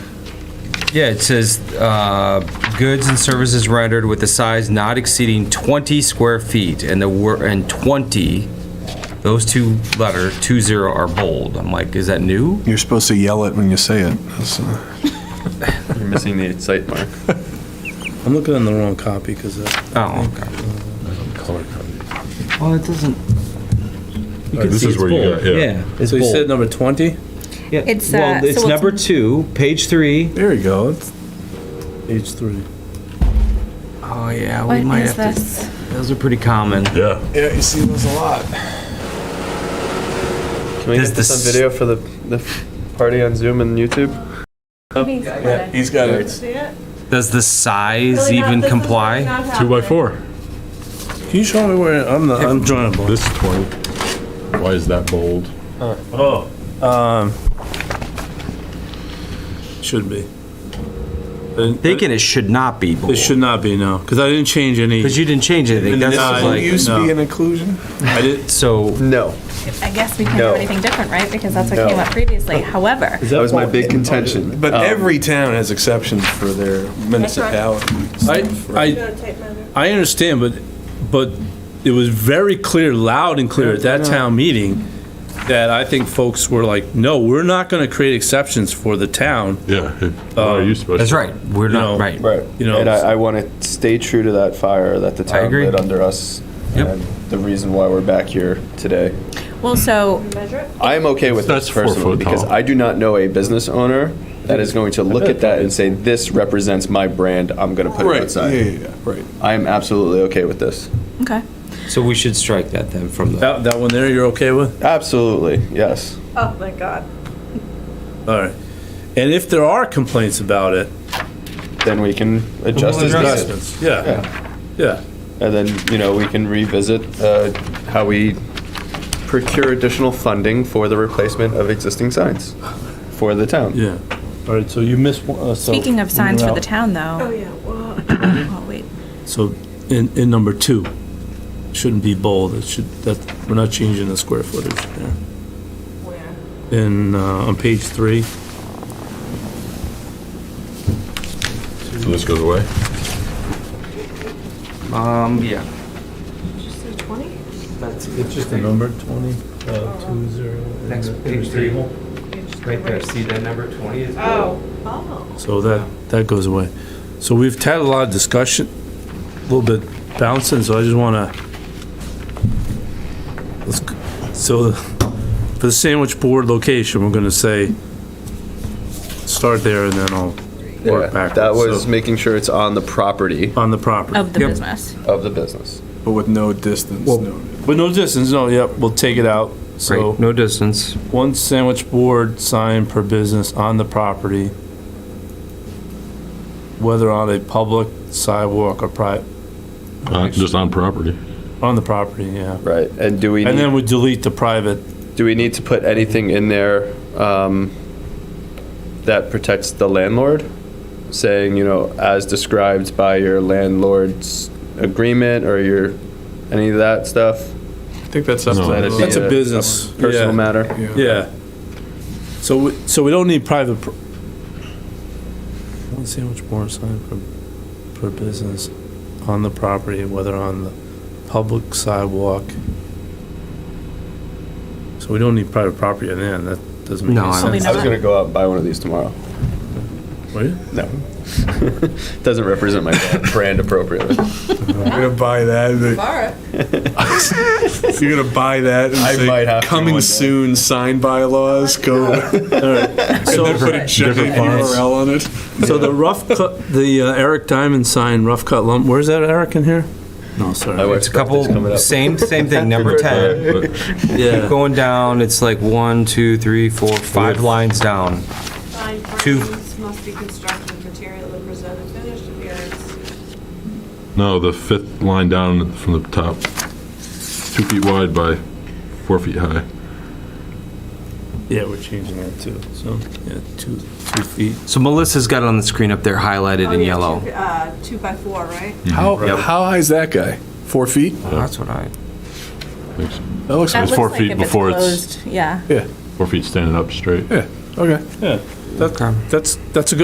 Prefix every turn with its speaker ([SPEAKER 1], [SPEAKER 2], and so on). [SPEAKER 1] Yeah, it says, uh, goods and services rendered with a size not exceeding 20 square feet, and the word, and 20, those two letter, two zero are bold. I'm like, is that new?
[SPEAKER 2] You're supposed to yell it when you say it. That's, uh,
[SPEAKER 3] You're missing the site mark.
[SPEAKER 4] I'm looking on the wrong copy uh, because
[SPEAKER 1] Oh, okay.
[SPEAKER 5] Color coded.
[SPEAKER 1] Well, it doesn't. You
[SPEAKER 5] Uh,
[SPEAKER 1] can
[SPEAKER 5] this
[SPEAKER 1] see
[SPEAKER 5] is
[SPEAKER 1] it's
[SPEAKER 5] where you
[SPEAKER 1] bold.
[SPEAKER 5] got- yeah.
[SPEAKER 1] Yeah, it's
[SPEAKER 4] so you said
[SPEAKER 1] bold.
[SPEAKER 4] number 20.
[SPEAKER 1] Yeah,
[SPEAKER 6] It's, uh,
[SPEAKER 1] Well,
[SPEAKER 6] so
[SPEAKER 1] it's
[SPEAKER 6] what's-
[SPEAKER 1] number two, page three.
[SPEAKER 2] there you go. It's-
[SPEAKER 4] Page three.
[SPEAKER 1] Oh, yeah, we
[SPEAKER 6] What
[SPEAKER 1] might
[SPEAKER 6] is
[SPEAKER 1] have to.
[SPEAKER 6] this?
[SPEAKER 1] Those are pretty common.
[SPEAKER 5] Yeah.
[SPEAKER 2] Yeah, you see those a lot.
[SPEAKER 3] Can we
[SPEAKER 1] Does
[SPEAKER 3] get this
[SPEAKER 1] this-
[SPEAKER 3] on video for the, the party on Zoom and YouTube?
[SPEAKER 2] He's got it.
[SPEAKER 1] Does the size even comply?
[SPEAKER 5] Two by four.
[SPEAKER 4] Can you show me where I'm the I'm drawing a blank.
[SPEAKER 5] This is 20. Why is that bold?
[SPEAKER 4] Oh, um, should be. I didn't-
[SPEAKER 1] Thinking it should not be bold.
[SPEAKER 4] It should not be no, because I didn't change any.
[SPEAKER 1] Because you didn't change anything.
[SPEAKER 4] And
[SPEAKER 1] That's
[SPEAKER 4] this is
[SPEAKER 1] just
[SPEAKER 4] what
[SPEAKER 1] like,
[SPEAKER 4] you-
[SPEAKER 2] Used to be an
[SPEAKER 4] no.
[SPEAKER 2] inclusion.
[SPEAKER 4] I didn't.
[SPEAKER 1] so
[SPEAKER 3] No.
[SPEAKER 6] I guess we can't
[SPEAKER 3] No.
[SPEAKER 6] do anything different, right? Because that's what
[SPEAKER 3] No.
[SPEAKER 6] came up previously. However,
[SPEAKER 3] That was my big contention.
[SPEAKER 2] But
[SPEAKER 3] Um,
[SPEAKER 2] every town has exceptions for their municipality.
[SPEAKER 4] I I I understand, but but it was very clear, loud and clear at that town meeting that I think folks were like, no, we're not going to create exceptions for the town.
[SPEAKER 5] Yeah. it- Why are you supposed to?
[SPEAKER 1] that's right. We're
[SPEAKER 4] No.
[SPEAKER 1] not right.
[SPEAKER 3] Right.
[SPEAKER 4] You know,
[SPEAKER 3] and I, I want to stay true to that fire that the town
[SPEAKER 1] agree.
[SPEAKER 3] lit under us.
[SPEAKER 1] Yep.
[SPEAKER 3] And the reason why we're back here today.
[SPEAKER 6] well, so
[SPEAKER 3] I am okay with
[SPEAKER 5] That's
[SPEAKER 3] this
[SPEAKER 5] four
[SPEAKER 3] personally
[SPEAKER 5] foot
[SPEAKER 3] because
[SPEAKER 5] tall.
[SPEAKER 3] I do not know a business owner that is going to look at that and say, this represents my brand. I'm going to put it
[SPEAKER 2] Right, yeah,
[SPEAKER 3] outside.
[SPEAKER 2] yeah, yeah, right.
[SPEAKER 3] I am absolutely okay with this.
[SPEAKER 6] okay.
[SPEAKER 1] So we should strike that then from the.
[SPEAKER 4] that that one there, you're okay with?
[SPEAKER 3] Absolutely. Yes.
[SPEAKER 7] Oh my god.
[SPEAKER 4] All right. And if there are complaints about it,
[SPEAKER 3] Then we can adjust
[SPEAKER 1] We'll
[SPEAKER 3] as
[SPEAKER 1] address
[SPEAKER 3] needed.
[SPEAKER 4] yeah, yeah,
[SPEAKER 3] And then, you know, we can revisit uh, how we procure additional funding for the replacement of existing signs for the town.
[SPEAKER 4] yeah. All right, so you missed one, uh, so.
[SPEAKER 6] Speaking of signs for the town,
[SPEAKER 7] Oh
[SPEAKER 6] though.
[SPEAKER 7] yeah. Well,
[SPEAKER 6] Oh, wait.
[SPEAKER 4] So in, in number two, shouldn't be bold, it should, that, we're not changing the square footage there.
[SPEAKER 7] where?
[SPEAKER 4] In, uh, on page three,
[SPEAKER 5] So this goes away?
[SPEAKER 1] Um, yeah.
[SPEAKER 7] Just said 20?
[SPEAKER 1] That's
[SPEAKER 4] the number twenty, uh, two zero.
[SPEAKER 1] right there. See that number twenty is.
[SPEAKER 7] Oh. Oh.
[SPEAKER 4] So that, that goes away. So we've had a lot of discussion, a little bit bouncing, so I just wanna. let's g- So for the sandwich board location, we're gonna say, start there and then I'll
[SPEAKER 3] Yeah,
[SPEAKER 4] work backwards.
[SPEAKER 3] That was
[SPEAKER 4] So,
[SPEAKER 3] making sure it's on the property
[SPEAKER 4] On the property.
[SPEAKER 6] Of the
[SPEAKER 1] Yep.
[SPEAKER 6] business.
[SPEAKER 3] of the business.
[SPEAKER 2] But with no distance
[SPEAKER 4] Well-
[SPEAKER 2] noted.
[SPEAKER 4] But no distance, no, yep, we'll take it out. So
[SPEAKER 1] Great. No distance.
[SPEAKER 4] one sandwich board sign per business on the property, whether on a public sidewalk or private,
[SPEAKER 5] Uh, Just on property.
[SPEAKER 4] on the property, yeah.
[SPEAKER 3] Right. And do we
[SPEAKER 4] And
[SPEAKER 3] need,
[SPEAKER 4] then we delete the private,
[SPEAKER 3] do we need to put anything in there um, that protects the landlord? Saying, you know, as described by your landlord's agreement or your any of that stuff?
[SPEAKER 2] I think that's up to
[SPEAKER 5] No,
[SPEAKER 2] the
[SPEAKER 5] that's-
[SPEAKER 2] landlord.
[SPEAKER 4] that's a business.
[SPEAKER 3] Personal
[SPEAKER 4] Yeah.
[SPEAKER 3] matter.
[SPEAKER 4] yeah. So, we- so we don't need private. pr- One sandwich board sign per, per business on the property, whether on the public sidewalk. So we don't need private property in there, and that doesn't make
[SPEAKER 1] No,
[SPEAKER 4] any
[SPEAKER 1] I don't
[SPEAKER 4] sense.
[SPEAKER 3] I was gonna go out and buy one of these tomorrow.
[SPEAKER 4] Were you?
[SPEAKER 3] No. Doesn't represent my brand appropriately.
[SPEAKER 2] You're gonna buy that. and then-
[SPEAKER 7] Alright.
[SPEAKER 2] You're gonna buy that. And
[SPEAKER 3] I
[SPEAKER 2] say,
[SPEAKER 3] might have to
[SPEAKER 2] coming
[SPEAKER 3] one day."
[SPEAKER 2] soon. Signed bylaws. Go and
[SPEAKER 4] So-
[SPEAKER 2] then put a giant URL on it.
[SPEAKER 4] So the rough cut, the uh, Eric Diamond sign, rough cut lump, where's that Eric in here? No,
[SPEAKER 3] I
[SPEAKER 4] sorry.
[SPEAKER 3] would
[SPEAKER 1] It's a
[SPEAKER 3] expect this coming
[SPEAKER 1] couple.
[SPEAKER 3] up.
[SPEAKER 1] Same same thing. Number ten.
[SPEAKER 5] But
[SPEAKER 4] Yeah.
[SPEAKER 1] Keep going down. It's like one, two, three, four, five lines down.
[SPEAKER 7] Signed
[SPEAKER 1] Two.
[SPEAKER 7] frames must be constructed of material and present a finished appearance.
[SPEAKER 5] No, the fifth line down from the top, two feet wide by four feet high.
[SPEAKER 4] Yeah, we're changing that too, so, yeah, two, two feet.
[SPEAKER 1] So Melissa's got it on the screen up there, highlighted
[SPEAKER 7] Oh,
[SPEAKER 1] in
[SPEAKER 7] yeah,
[SPEAKER 1] yellow.
[SPEAKER 7] Two, uh, two by four, right?
[SPEAKER 2] How
[SPEAKER 4] Right.
[SPEAKER 2] how high is that guy? Four feet?
[SPEAKER 1] Oh, that's what I.
[SPEAKER 5] Thanks.
[SPEAKER 2] That looks
[SPEAKER 6] That
[SPEAKER 5] It's
[SPEAKER 2] nice.
[SPEAKER 6] looks
[SPEAKER 5] four
[SPEAKER 6] like
[SPEAKER 5] feet
[SPEAKER 6] if it's
[SPEAKER 5] before it's-
[SPEAKER 6] closed, Yeah.
[SPEAKER 5] Four feet standing up straight.
[SPEAKER 2] Okay.
[SPEAKER 4] Yeah,
[SPEAKER 1] Okay.
[SPEAKER 4] that's, that's a good